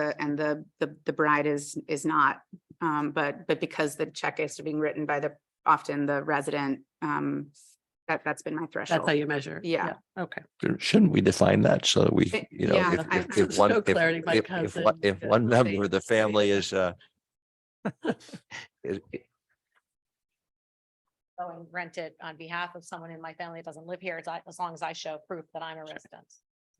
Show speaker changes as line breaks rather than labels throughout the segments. the, and the, the, the bride is, is not. Um, but, but because the check is being written by the, often the resident, um, that, that's been my
That's how
threshold.
you measure.
Yeah.
Okay.
There- Shouldn't we define that so that we,
Eh,
It-
you know,
yeah,
if,
I-
if, if
there's
one,
no
if,
clarity, my
if, if
cousin
one, if
uh,
got
one
the same
member of the family is, uh, is-
go and rent it on behalf of someone in my family that doesn't live here, as I- as long as I show proof that I'm a resident.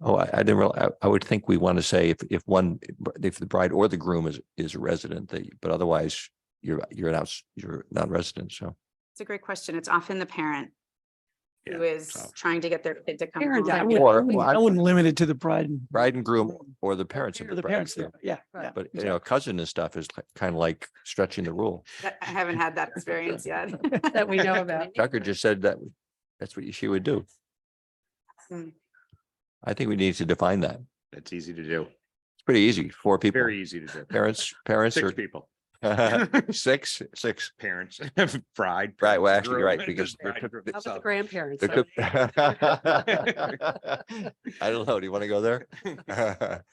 oh, I, I didn't real, I, I would think we want to say if, if one, if the bride or the groom is, is a resident, that, but otherwise you're, you're an outs, you're not resident, so.
It's a great question. It's often the parent who is
so.
trying to get their kid to come
Parents, I
home.
mean,
Or-
wouldn't-
well, I-
I wouldn't limit it to the bride and.
Bride and groom or the parents of
Or
the
the
bride.
parents,
and groom.
there. yeah,
Right.
yeah.
But, you know, cousin and stuff is kind of like stretching the rule.
That- I haven't had that experience yet.
That we know about.
Tucker just said that, that's what she would do.
Mm.
I think we need to define that. It's
That's easy to do.
pretty easy, four people.
Very easy to do.
Parents, parents
Six
or
people,
six, six.
parents, bride.
Right, well,
groom,
actually, you're right,
and
because there
bride,
could-
groom,
there
How about the
so-
grandparents?
There
Are
could-
they-
I don't know. Do you want to go there?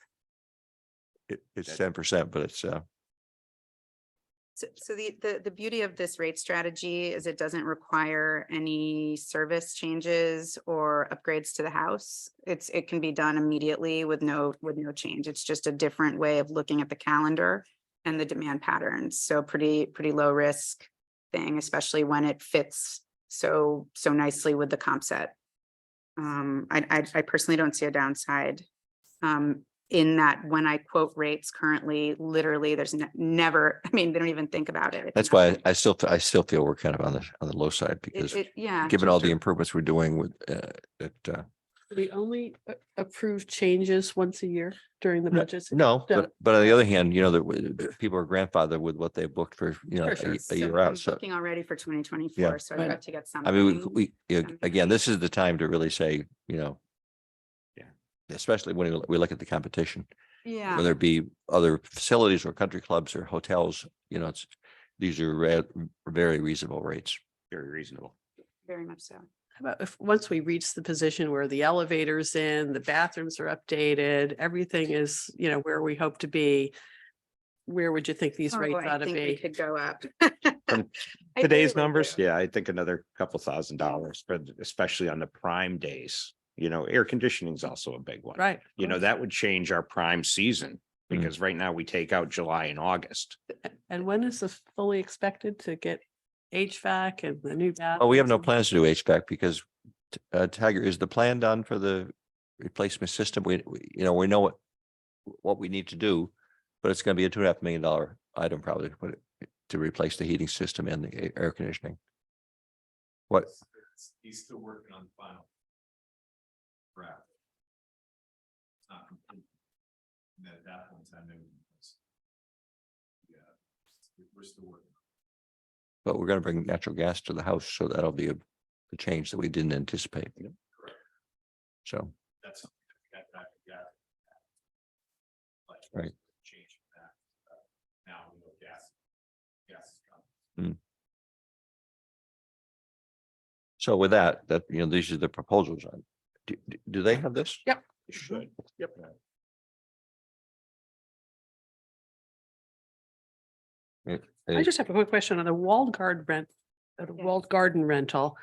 It, it's ten percent, but it's, uh,
So, so the, the, the beauty of this rate strategy is it doesn't require any service changes or upgrades to the house. It's, it can be done immediately with no, with no change. It's just a different way of looking at the calendar and the demand patterns. So pretty, pretty low risk thing, especially when it fits so, so nicely with the comp set. Um, I, I, I personally don't see a downside. Um, in that when I quote rates currently, literally, there's ne- never, I mean, they don't even think about it. It's
that's why
nothing.
I still, I still feel we're kind of on the, on the low side because
It, it, yeah,
given all the improvements we're doing with, uh, that, uh,
We only a- approve changes once a year during the
No,
budgets.
No,
Yeah.
but, but on the other hand, you know, that w- that people are grandfathered with what they booked for, you know,
For
a-
sure.
a
So
year
I'm
out. So,
looking already for twenty twenty-four, so I've
Right.
got to get something.
I mean, we, we,
something.
again, this is the time to really say, you know.
Yeah.
Especially when we look at the competition,
Yeah,
whether it be other facilities or country clubs or hotels, you know, it's, these are re- very reasonable rates.
Very reasonable.
very much so.
How about if, once we reach the position where the elevator's in, the bathrooms are updated, everything is, you know, where we hope to be, where would you think these
Oh,
rates
I
ought to
think we
be?
Could go up.
From
I
Today's
totally
numbers,
do.
yeah, I think another couple thousand dollars, but especially on the prime days, you know, air conditioning is also a big one.
Right.
You know, that would change our prime season
Mm.
because right now we take out July and August.
And when is this fully expected to get HVAC and the new bath?
Oh,
Well, Oh, we have no plans to do HVAC because, t- uh, Tiger, is the plan done for the replacement system? We, we- you know, we know what, what we need to do, but it's gonna be a two and a half million dollar item probably to put it, to replace the heating system and the a- air conditioning. What,
He's still working on the final. Draft. It's not complete. And then at that point in time, they would. Yeah. we- We're still working.
but we're gonna bring natural gas to the house, so that'll be a, a change that we didn't anticipate. So,
That's something that we got back, we got. Like.
Right.
Change from that. uh, Now we know gas. Gas is coming.
so with that, that, you know, these are the proposals on, do, do- do they have this?
It Should. Yep.
I just have a quick question on the walled garden rent, uh, the
Yeah.
walled garden rental.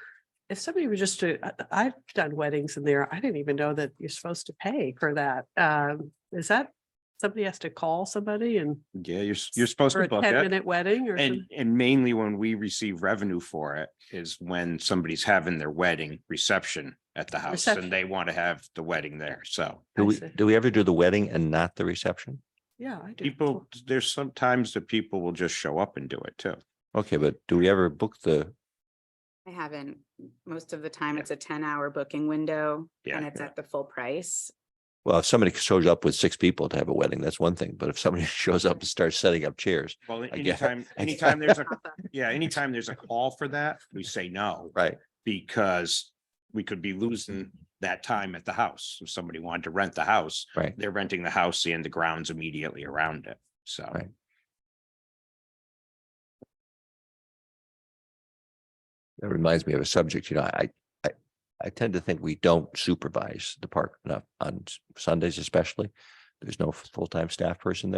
If somebody was just to, I- I've done weddings in there. I didn't even know that you're supposed to pay for that. Um, is that somebody has to call somebody and
Yeah, you're, s- you're supposed
for
to
a ten
book it.
minute wedding or?
And,
some-
and mainly when we receive revenue for it is when somebody's having their wedding reception at the house
Reception.
and they want to have the wedding there. So
Do
I
we,
see.
do we ever do the wedding and not the reception?
Yeah, I do.
people, there's sometimes that people will just show up and do it too.
Okay, but do we ever book the
I haven't. Most of the time, it's a ten-hour booking window and
Yeah.
it's at the full price.
Well, if somebody shows up with six people to have a wedding, that's one thing. But if somebody shows up and starts setting up chairs,
Well,
guess-
anytime,
I-
anytime there's a,
Not the-
yeah, anytime there's a call for that, we say no.
right?
Because we could be losing that time at the house. If somebody wanted to rent the house.
Right.
They're renting the house and the grounds immediately around it. So.
Right. That reminds me of a subject, you know, I, I, I tend to think we don't supervise the park enough on s- Sundays especially. There's no full-time staff person there.